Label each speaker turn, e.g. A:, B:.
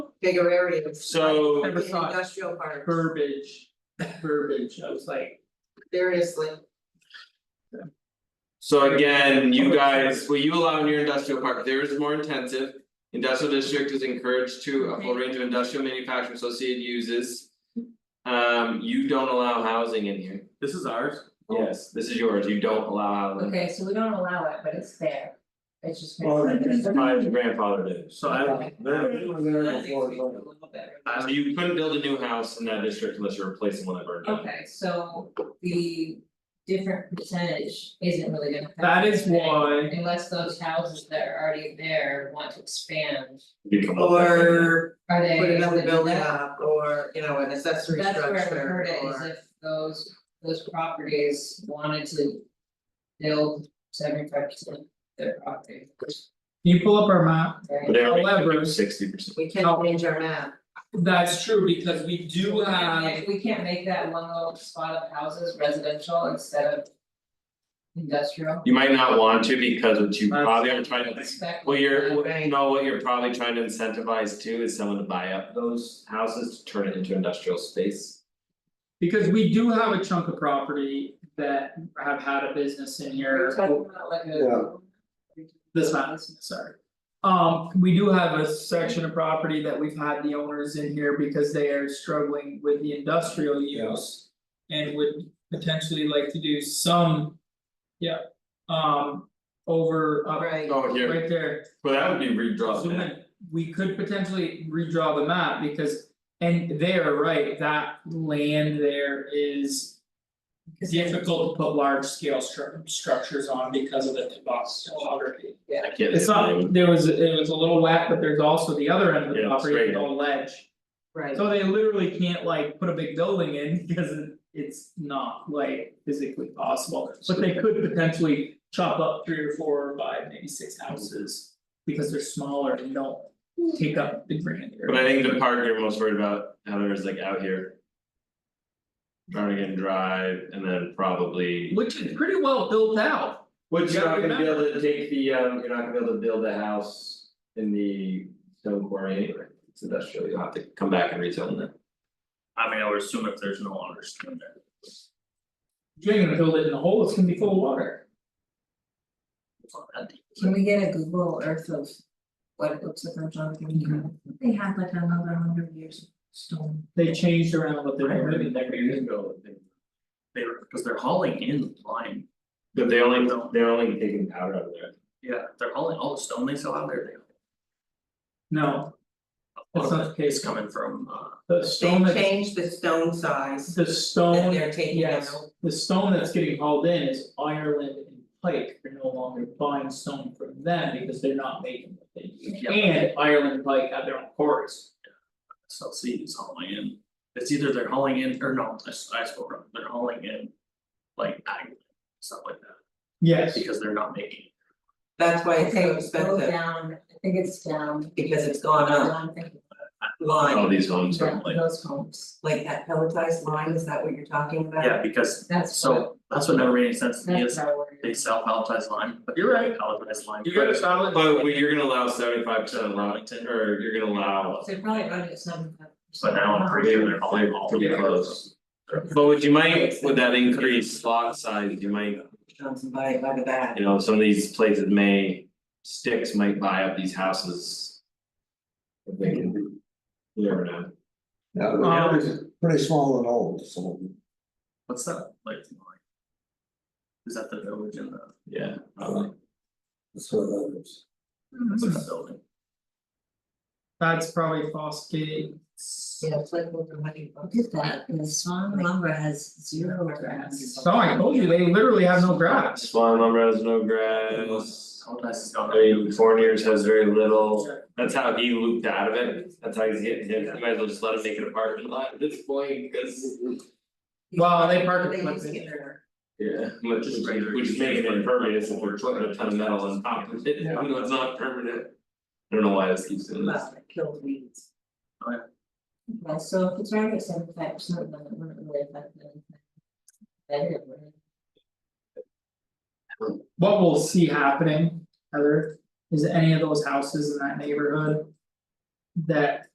A: bigger areas.
B: So-
A: like,
C: Never
A: in
C: thought.
A: Industrial parks,
C: verbiage, verbiage, I was like,
A: seriously,
B: So again, you guys, what you allow in your industrial park, theirs is more intensive. Industrial district is encouraged to a full range of industrial manufacturing associated uses. Um, you don't allow housing in here,
D: This is ours.
B: yes, this is yours, you don't allow housing.
E: Okay, so we don't allow it, but it's there. It's just.
F: Well,
E: been-
F: it's
B: My grandfather did,
D: So I,
F: They were there before, so-
B: so Uh, you couldn't build a new house in that district unless you're replacing one that burned down.
E: Okay, so the different percentage isn't really gonna.
C: that is
E: affect anything,
C: why,
E: Unless those houses that are already there want to expand,
B: You come up with that.
A: or
E: are they?
A: put another
E: is it
A: building
E: that-
A: up, or, you know, an accessory
E: That's
A: structure, or.
E: where I heard it, is if those, those properties wanted to build seventy five percent of their property,
C: you pull up our map,
E: right?
B: But they only took
C: However-
B: sixty percent.
A: We can
C: Oh.
A: change our map,
C: that's true, because we do
E: We can't
C: have,
E: make- We can't make that one little spot of houses residential instead of. Industrial.
B: You might not want to because what you
C: That's-
B: probably are trying to,
E: Expect-
B: what you're, what-
A: Right.
B: no, what you're probably trying to incentivize too is someone to buy up those houses to turn it into industrial space.
C: because we do have a chunk of property that have had a business in
E: Are you
C: here.
E: talking about like a-
C: This map, sorry. Um, we do have a section of property that we've had the owners in here because they are struggling with the industrial use. And would potentially like to do some. Yeah, um, over, uh,
A: right,
B: Oh,
C: right there,
B: well, that would be redrawn.
C: zoom in. We could potentially redraw the map because, and they are right, that land there is. Difficult to put large scale stru- structures on because of the topography.
B: I can't.
C: It's not, there was, it was a little wet, but there's also the other end of the
B: Yeah,
C: property,
B: straight.
C: with all ledge.
A: right,
C: So they literally can't like put a big building in because it- it's not like physically possible, but they could potentially chop up three or four or five, maybe six houses. Because they're smaller and don't take up the grand
B: But I
C: area.
B: think the part you're most worried about, Heather, is like out here. Barnigan Drive and then probably.
C: Which is pretty well built out,
B: Which
C: You
B: you're not
C: gotta
B: gonna be able to take the um, you're not gonna be able to build a house in the stone quarry anyway, it's industrial, you'll have to come back and rezone that.
D: I mean, I would assume if there's no understanding there.
C: you ain't gonna build it in a hole, it's gonna be full of water.
E: Can we get a Google Earth of what it looks like on Jonathan County? They had like another hundred years of stone.
C: They changed around what they were doing there.
D: ago, they. They were, cause they're hauling in lime,
B: But they only, they're only taking powder out of there.
D: yeah, they're hauling all the stone they sell out there,
C: No,
D: they.
C: That's not the
D: It's
C: case.
D: coming from uh.
C: the
A: they
C: stone that's
A: changed the stone size,
C: The stone,
A: they're taking
C: yes,
A: out.
C: the stone that's getting hauled in is Ireland and Pike, they're no longer buying stone from them because they're not making what they need.
D: Yeah.
C: And Ireland and Pike have their own quarries,
D: SLC is hauling in, it's either they're hauling in or no, I s- I spoke wrong, they're hauling in. Like ag, stuff like that,
C: yes,
D: because they're not making.
A: that's why it's so
E: Okay, go
A: expensive,
E: down, I think it's down,
A: because it's
E: Uh,
A: gone up,
E: I'm thinking
B: All
A: line,
B: these homes are
E: down
B: like,
E: those homes,
A: like that pelletized line, is that what you're talking about?
D: Yeah, because
E: that's what,
D: so that's what never made any sense to me
E: that's
D: is
E: our word.
D: they sell palletized lime, but
C: You're right.
D: Palletized lime.
C: you gotta sell it.
B: but we- you're gonna allow seventy five percent of lot,
D: Arlington.
B: or you're gonna allow,
E: So probably under some.
D: But now I'm pretty sure they're hauling all.
B: pretty
D: the-
B: close. But what you might, with that increased lot size, you might,
A: Johnson by by the back,
B: you know, some of these places may, sticks might buy up these houses. If they can, you never know.
F: Yeah, but it's pretty small and old, so.
D: What's that like? Is that the village in the,
B: Yeah,
F: uh,
B: probably.
F: That's what that is.
E: Hmm.
D: what's that building?
C: That's probably Foss Gate,
A: yeah, it's like over money.
E: Look at that, and the Swan Lumber has zero grass.
C: so I told you, they literally have no grass.
B: Swan lumber has no grass.
D: Palletized is gone.
B: I mean, Fournier's has very little, that's how he looped out of it, that's how he's getting his, you might as well just let him make an apartment lot at this point, cause.
C: Well, they park it-
A: They used to get their-
B: Yeah. Which is,
D: regular-
B: which is making it impervious if we're putting a ton of metal on top of it, even though it's not permanent. I don't know why this keeps doing this,
A: well, it uh, killed weeds.
E: Well, so if it's around at seventy five percent, then it wouldn't really affect anything. Then it would.
C: What we'll see happening, Heather, is any of those houses in that neighborhood. That